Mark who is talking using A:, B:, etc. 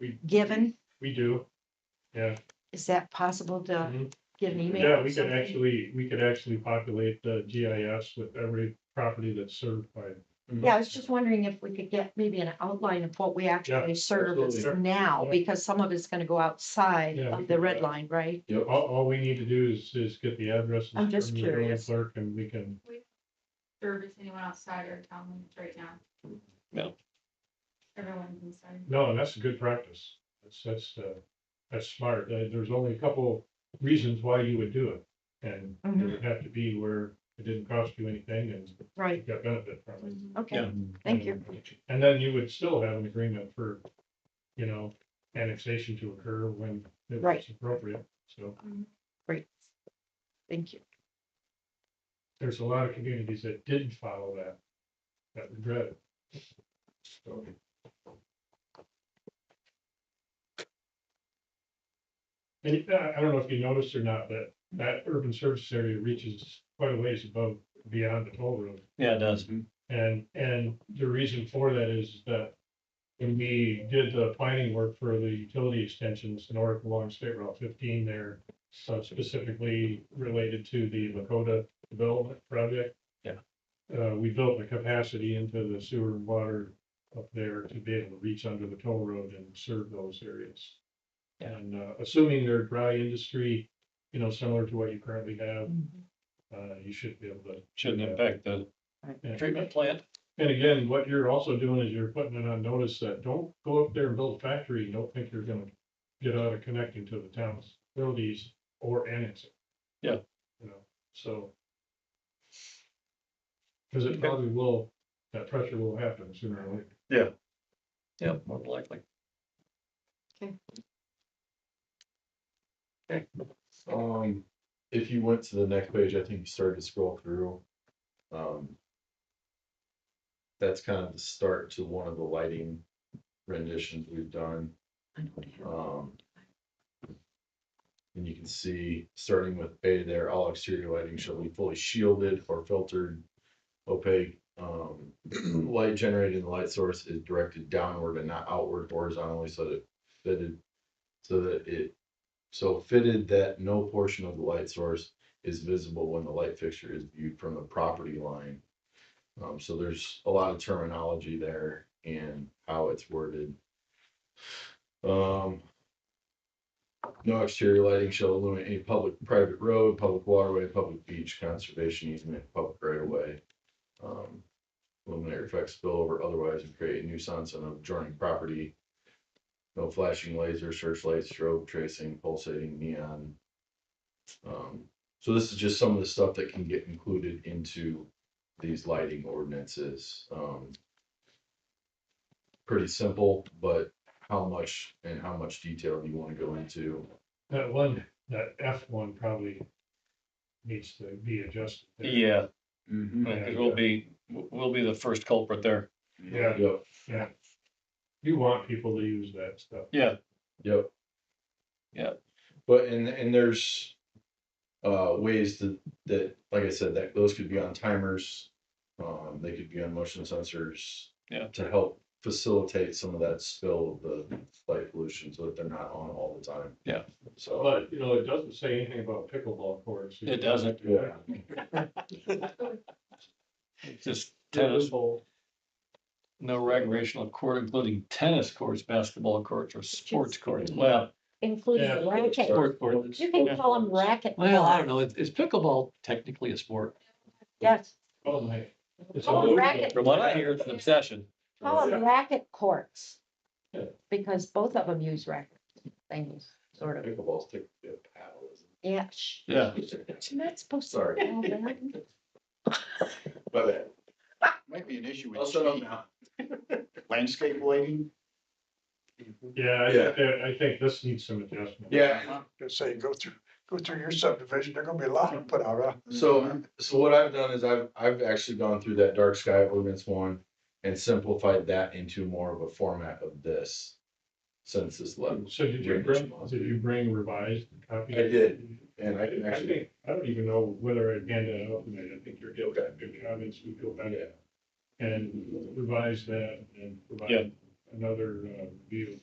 A: We-
B: given?
A: We do. Yeah.
B: Is that possible to
A: Mhm.
B: get an email?
A: Yeah,
B: or
A: we could
B: something?
A: actually, we could actually populate the GIS with every property that's certified.
B: Yeah, I was just wondering if we could get maybe an outline of what we actually service
A: absolutely.
B: now,
A: Yeah.
B: because some of it's gonna go outside
A: Yeah, we
B: of the
A: could,
B: red
A: uh,
B: line, right?
A: All, all we need to do is, is get the addresses.
B: I'm just
A: from the building
B: curious.
A: Clerk and we can,
C: service anyone outside our town limits right now.
D: No.
C: Everyone's inside.
A: no, and that's a good practice. That's, that's, uh, that's smart. Uh, There's only a couple reasons why you would do it. And
B: Mm-hmm,
A: it would have to be where it didn't cost you anything and you
B: Right,
A: got benefit from it.
B: okay,
D: Yeah.
B: thank you.
A: And then you would still have an agreement for, you know, annexation to occur when it was
B: Right.
A: appropriate. So
B: Great. Thank you.
A: there's a lot of communities that didn't follow that, that regret it. So, And uh, I don't know if you noticed or not, but that urban service area reaches quite a ways above, beyond the toll road.
D: Yeah, it does.
A: And, and the reason for that is that when we did the planning work for the utility extensions in Oregon along State Route fifteen there, uh, specifically related to the Lakota Development Project.
D: Yeah.
A: Uh, we built the capacity into the sewer and water up there to be able to reach under the toll road and serve those areas.
D: Yeah.
A: And, uh, assuming they're dry industry, you know, similar to what you currently have,
B: Mm-hmm.
A: uh, you should be able to.
D: Shouldn't impact the
A: Yeah.
D: treatment plant.
A: And again, what you're also doing is you're putting it on notice that don't go up there and build a factory and don't think you're gonna get out of connecting to the town's facilities or annexing.
D: Yeah.
A: You know, so. Cause it probably will, that pressure will happen sooner or later.
D: Yeah, more than likely.
E: Um, if you went to the next page, I think you started to scroll through. Um. That's kind of the start to one of the lighting renditions we've done,
B: I know what happened.
E: um. And you can see, starting with A there, all exterior lighting shall be fully shielded or filtered opaque. Um, light generated in the light source is directed downward and not outward horizontally, so that fitted, so that it so fitted that no portion of the light source is visible when the light fixture is viewed from the property line. Um, so there's a lot of terminology there and how it's worded. Um. No exterior lighting shall illuminate any public, private road, public waterway, public beach, conservation easement, public right of way. Um, illuminate, reflect, spill over, otherwise and create a nuisance on adjoining property. No flashing laser, searchlights, strobe tracing, pulsating neon. Um, so this is just some of the stuff that can get included into these lighting ordinances. Um. Pretty simple, but how much and how much detail do you wanna go into?
A: That one, that F one probably needs to be adjusted. there.
D: Yeah,
A: Yeah.
D: because we'll be, we'll be the first culprit there.
A: Yeah,
E: Yep,
A: you want people to use that stuff.
D: Yeah,
E: yep.
D: Yep.
E: But and and there's. Uh, ways that that, like I said, that those could be on timers. Um, they could be on motion sensors.
D: Yeah.
E: To help facilitate some of that spill of the light pollution so that they're not on all the time.
D: Yeah.
E: So,
A: But, uh, you know, it doesn't say anything about pickleball courts.
D: It doesn't.
E: yeah,
D: just tennis, no recreational court, including tennis courts, basketball courts, or sports courts. Well,
B: Including
A: Yeah.
B: the racket.
D: sport courts.
B: You can call them racket.
D: Well, I don't know. Is is pickleball technically a sport?
B: Yes,
A: Oh, my. It's
B: Call 'em
A: unbelievable.
B: racket.
D: From what I hear, it's an obsession.
B: call them racket courts.
A: Yeah.
B: Because both of them use racket things, sort of.
E: Pickleball's take a bit of paddle, isn't it?
B: Yeah. shh.
D: Yeah.
B: You're not supposed to.
E: Sorry.
B: call that.
E: My bad.
F: Might be an issue
E: I'll
F: with
E: shut up
F: shade,
E: now.
F: landscape lighting.
A: Yeah, I think, that- I think this needs some adjustment.
E: Yeah,
G: Just say, go through, go through your subdivision, there're gonna be a lot to put out, huh?
E: so, so what I've done is I've, I've actually gone through that dark sky ordinance one and simplified that into more of a format of this census level.
A: So did you bring, did you bring revised copy?
E: I did, and I can
A: I
E: actually,
A: think, I don't even know whether I handed it out, tonight. I think you're, you've got good comments, we go back
E: yeah.
A: and revise that and
D: Yeah.
A: provide another, uh, view.